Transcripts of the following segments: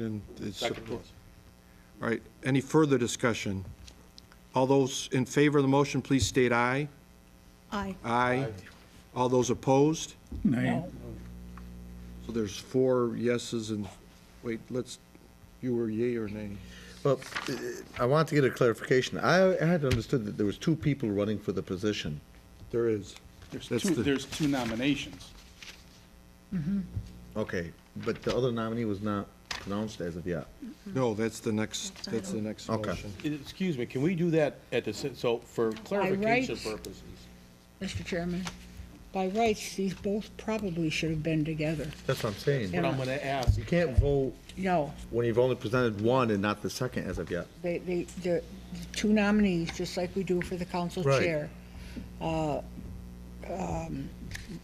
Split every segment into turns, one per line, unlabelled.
And it's
Second.
support. All right, any further discussion? All those in favor of the motion, please state aye.
Aye.
Aye. All those opposed?
Nay.
So there's four yeses and, wait, let's, you were yea or nay?
Well, uh, I want to get a clarification. I had understood that there was two people running for the position.
There is.
There's
That's
two,
the-
there's two nominations.
Okay, but the other nominee was not announced as of yet.
No, that's the next, that's the next
Okay.
motion.
Excuse me, can we do that at the, si- so for clarification
rights-
purposes?
Mr. Chairman, by rights, these both probably should have been together.
That's what I'm saying.
What I'm gonna ask,
You can't vote
No,
when you've only presented one and not the second as of yet.
they, they, the the two nominees, just like we do for the council
Right.
chair. uh, um,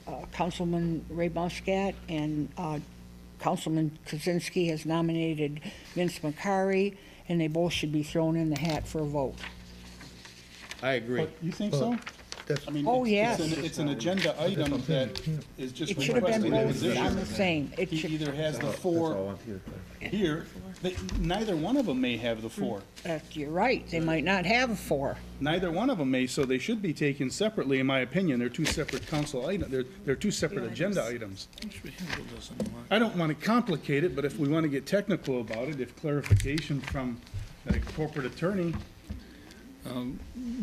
uh, Councilman Ray Muscat and uh, Councilman Kozinski has nominated Vince McCary, and they both should be thrown in the hat for a vote.
I agree.
But you think so?
that's-
I mean,
Oh,
it's- It's
yes.
an, it's an agenda item that is just
It should have been
requesting a
both
position.
on the same. It
He
should,
either has the
That's all I
four
want to get.
here, they- neither one of them may have the four.
uh, you're right, they might not have a four.
Neither one of them may, so they should be taken separately, in my opinion. They're two separate council item, they're, they're two separate agenda items. I don't want to complicate it, but if we want to get technical about it, if clarification from the corporate attorney,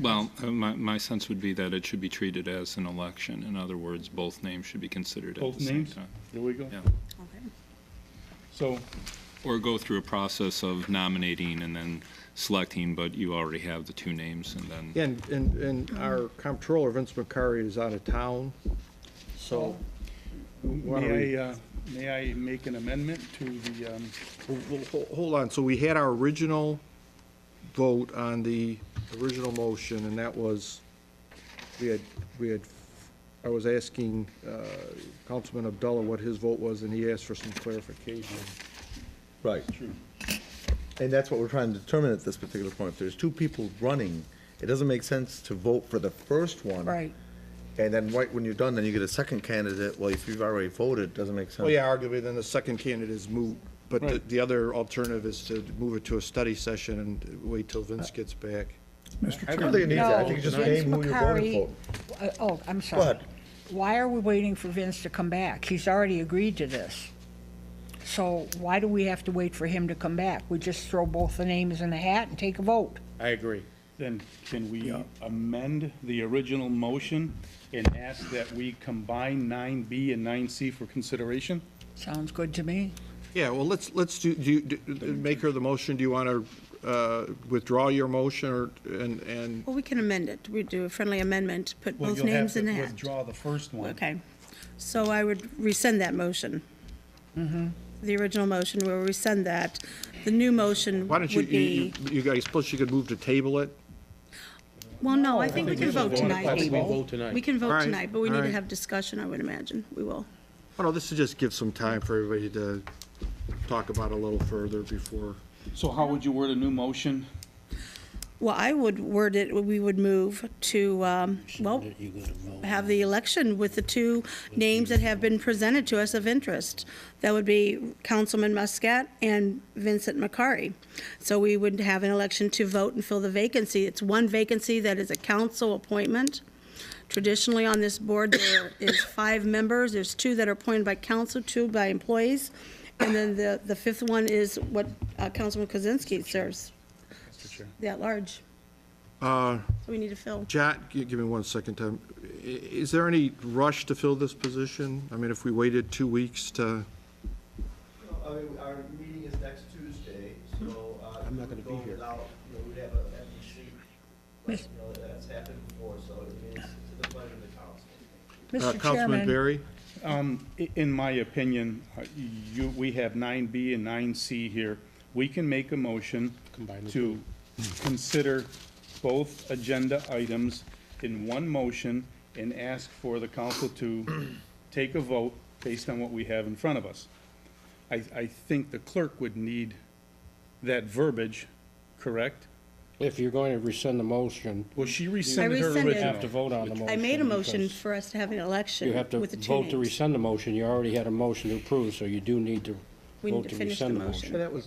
Well, uh, my, my sense would be that it should be treated as an election. In other words, both names should be considered at
both
the same
names,
time.
there we go.
Yeah.
So,
Or go through a process of nominating and then selecting, but you already have the two names and then.
Yeah, And, and, and our comptroller, Vince McCary, is out of town, so. why don't we-
May I, uh, may I make an amendment to the, um,
Well, well, ho- Hold on, so we had our original vote on the original motion, and that was, we had, we had, I was asking uh, Councilman Abdullah what his vote was, and he asked for some clarification.
Right.
True.
And that's what we're trying to determine at this particular point. If there's two people running, it doesn't make sense to vote for the first one.
Right.
And then right when you're done, then you get a second candidate. Well, if you've already voted, it doesn't make sense.
Well, Oh, yeah, arguably, then the second candidate is moot, but the-
Right.
the other alternative is to move it to a study session and wait till Vince gets back.
Mr.
I don't
Chairman,
think it needs that. I think you
No,
just name who you're voting
Vince
for.
McCary- uh, Oh, I'm sorry.
ahead.
Why are we waiting for Vince to come back? He's already agreed to this. So why do we have to wait for him to come back? We just throw both the names in the hat and take a vote.
I agree.
then can we amend the original motion and ask that we combine nine B and nine C for consideration?
Sounds good to me.
Yeah, well, let's, let's do, do, you- do- make her the motion, do you want to withdraw your motion, or, and, and
Well, we can amend it. We do a friendly amendment, put both names in
Well, you'll
that.
have to withdraw the first one.
Okay. So I would rescind that motion. Mm-hmm. The original motion, we'll rescind that. The new motion
Why don't you,
would
you,
be,
you- you guys, suppose you could move to table it?
well, no, I think we can vote
Why don't
tonight.
we vote tonight?
We can
All
vote
right,
tonight, but we
all
need to
right.
have discussion, I would imagine. We will.
Oh, no, this is just give some time for everybody to talk about it a little further before.
So how would you word a new motion?
Well, I would word it, we would move to, um, well, have the election with the two names that have been presented to us of interest. That would be Councilman Muscat and Vincent McCary. So we would have an election to vote and fill the vacancy. It's one vacancy that is a council appointment. Traditionally, on this board, there is five members. There's two that are appointed by council, two by employees. And then the, the fifth one is what uh, Councilman Kozinski serves, the at-large.
Uh,
So we need to fill.
Jack, gi- give me one second time. I- Is there any rush to fill this position? I mean, if we waited two weeks to,
No, I mean, our meeting is next Tuesday, so, uh. I'm not gonna be here. Without, you know, we'd have a empty seat, like, you know, that's happened before, so it means to the pleasure of the council.
uh,
Mr.
Councilman
Chairman,
Barry?
Um, i- in my opinion, uh, you, we have nine B and nine C here. We can make a motion
Combine the
to consider both agenda items in one motion and ask for the council to take a vote based on what we have in front of us. I, I think the clerk would need that verbiage, correct?
If you're going to rescind the motion,
Well, she rescinded her original.
rescinded. You
you have to vote on the motion.
I made a motion
because
for us to have an election
You have to
with the two
vote to
names.
rescind the motion. You already had a motion to approve, so you do need to
We need
vote
to
to
finish the
rescind the
motion.
motion.
And that was